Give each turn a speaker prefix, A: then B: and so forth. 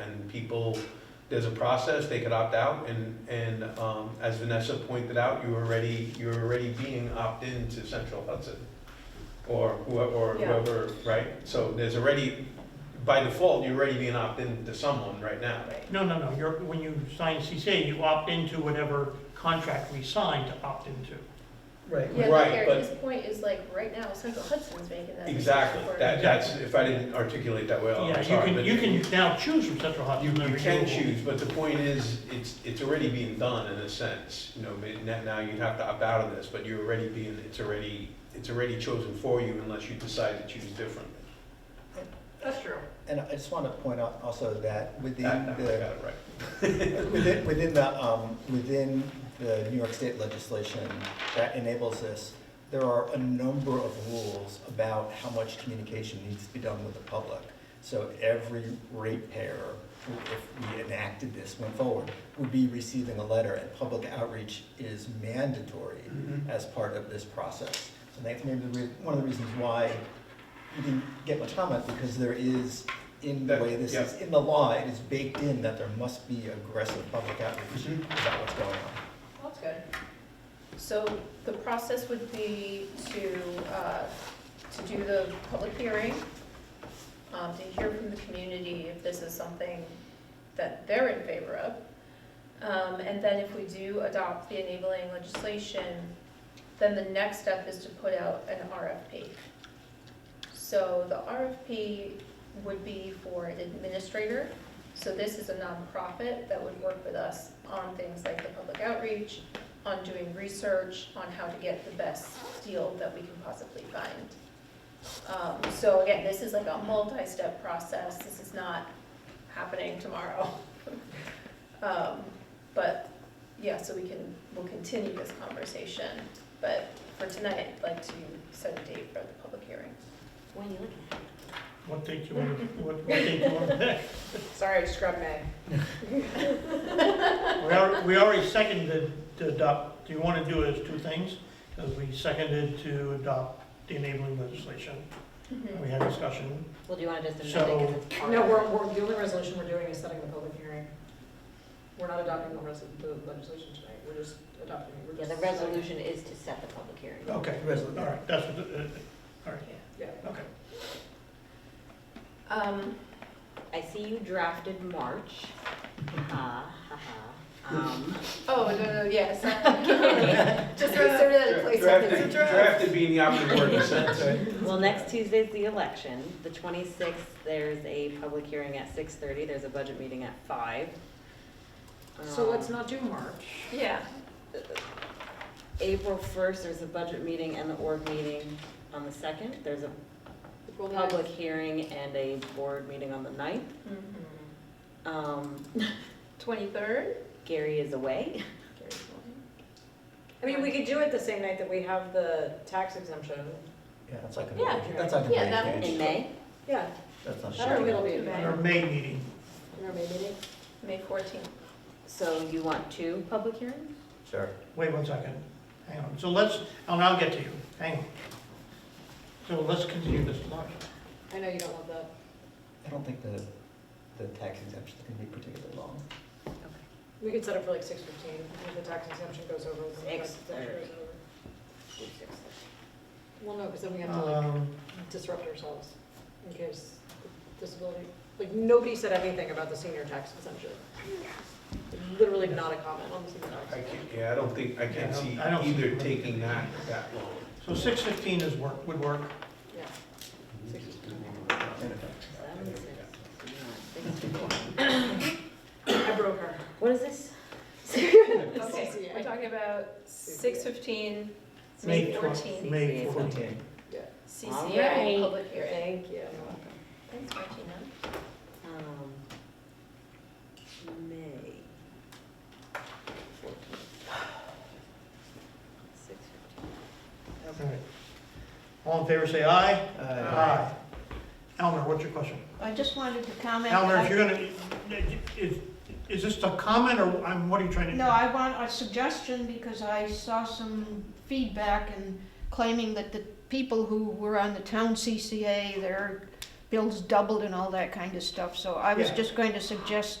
A: and people, there's a process, they could opt out, and, and, um, as Vanessa pointed out, you already, you're already being opted into Central Hudson, or whoever, or
B: Yeah.
A: whoever, right? So there's already, by default, you're already being opted into someone right now.
C: No, no, no, you're, when you sign CCA, you opt into whatever contract we sign to opt into.
D: Right.
B: Yeah,
A: Right,
B: but Gary,
A: but-
B: his point is like, right now, Central Hudson's making that. decision
A: Exactly,
B: for
A: that,
B: him.
A: that's, if I didn't articulate that well,
C: Yeah,
A: Oh, I'm
C: you
A: sorry.
C: can,
A: but
C: you can now choose from Central
A: You,
C: Hudson.
A: you
C: River
A: can
C: Renewable.
A: choose, but the point is, it's, it's already being done in a sense, you know, but now, now you'd have to opt out of this, but you're already being, it's already, it's already chosen for you unless you decide to choose differently.
B: That's true.
D: And I just want to point out also that within
A: That, that, I got
D: the,
A: it right.
D: within, within the, um, within the New York State legislation that enables this, there are a number of rules about how much communication needs to be done with the public. So every ratepayer, who, if we enacted this, went forward, would be receiving a letter, and public outreach is mandatory
A: Mhm.
D: as part of this process. So that's maybe the re- one of the reasons why you didn't get much comment, because there is, in the
A: That-
D: way this is, in the law, it is baked in that there must be aggressive public outreach
C: Mm-hmm.
A: Mhm.
D: about what's going on.
B: That's good. So the process would be to, uh, to do the public hearing, um, to hear from the community if this is something that they're in favor of. Um, and then if we do adopt the enabling legislation, then the next step is to put out an RFP. So the RFP would be for an administrator so this is a nonprofit that would work with us on things like the public outreach, on doing research, on how to get the best deal that we can possibly find. Um, so again, this is like a multi-step process, this is not happening tomorrow. Um, but, yeah, so we can, we'll continue this conversation, but for tonight, I'd like to set a date for the public hearing.
E: When you looking at?
C: What date you want, what, what date you want to pick?
F: Sorry, I just grabbed May.
C: We already, we already seconded to adopt, do you want to do it as two things? Because we seconded to adopt the enabling legislation,
B: Mm-hmm.
C: and we had discussion.
E: Well, do you want to just
C: So-
E: amend it? 'cause it's
F: No,
E: already-
F: we're, we're, the only resolution we're doing is setting the public hearing. We're not adopting the res, the legislation tonight, we're just adopting. we're
E: Yeah, the
F: just-
E: resolution is to set the public hearing.
C: Okay, all right, that's what, the- uh, all right,
F: Yeah.
C: okay.
B: Um,
E: I see you drafted March. Ha, ha, ha. Um,
B: oh, no, no, yes, just consider that a placeholder.
A: Drafted, drafted being the operative word in a sense.
F: Mm-hmm.
E: Well, next Tuesday's the election. The 26th, there's a public hearing at 6:30. There's a budget meeting at 5.
F: So let's
E: Um,
F: not do March.
B: Yeah,
E: April 1st, there's a budget meeting and the org meeting on the 2nd. There's a
F: April ninth.
E: public hearing and a board meeting on the 9th.
B: Mm-hmm.
E: Um,
B: twenty-third?
E: Gary is away.
F: I mean, we could do it the same night that we have the tax exemption.
D: Yeah, that's like a,
F: Yeah.
D: that's like a
B: Yeah, that
D: blank
B: would
D: page.
E: In May,
F: Yeah,
D: That's not
F: that'll
D: shaking.
F: it'll be.
B: May.
C: Our May meeting,
F: Or maybe
B: May fourteenth.
E: so you want two public hearings?
D: Sure.
C: wait one second, hang on, so let's, I'll now get to you, hang on. So let's continue this logic.
F: I know you don't love that.
D: I don't think the, the tax exemption is going to be particularly long.
F: We could set it for like six fifteen, if the tax exemption goes over. then the tax
E: Six
F: exemption
E: thirty.
F: goes over. Well, no, because then we have to like
C: Um,
F: disrupt ourselves in case disability, like, nobody said anything about the senior tax exemption. Literally not a comment on the senior
A: I
F: tax.
A: can't,
F: exemption.
A: yeah, I don't think, I
C: Yeah, I
A: can't
C: don't-
A: see
C: I don't
A: either
C: see-
A: taking that that long.
C: So six fifteen is work, would work.
F: Yeah. Six
E: Seven, six, six,
F: I broke her.
E: What is this?
B: Okay,
F: CCA.
B: we're talking about six fifteen, May
C: May
B: fourteenth,
C: May
E: CCA.
C: fourteen.
B: CCA
E: Alright.
B: public hearing.
F: Thank you.
B: Thanks, Martina.
E: Um, May. Six fifteen.
C: All
E: Okay.
C: right. All in favor, say aye.
D: Aye.
C: Elmer, what's your question?
G: I just wanted to comment.
C: Elmer,
G: that
C: if
G: I-
C: you're gonna, is, is this a comment or I'm, what are you trying to?
G: No, I want a suggestion because I saw some feedback and claiming that the people who were on the town CCA, their bills doubled and all that kind of stuff. So I was
C: Yeah.
G: just going to suggest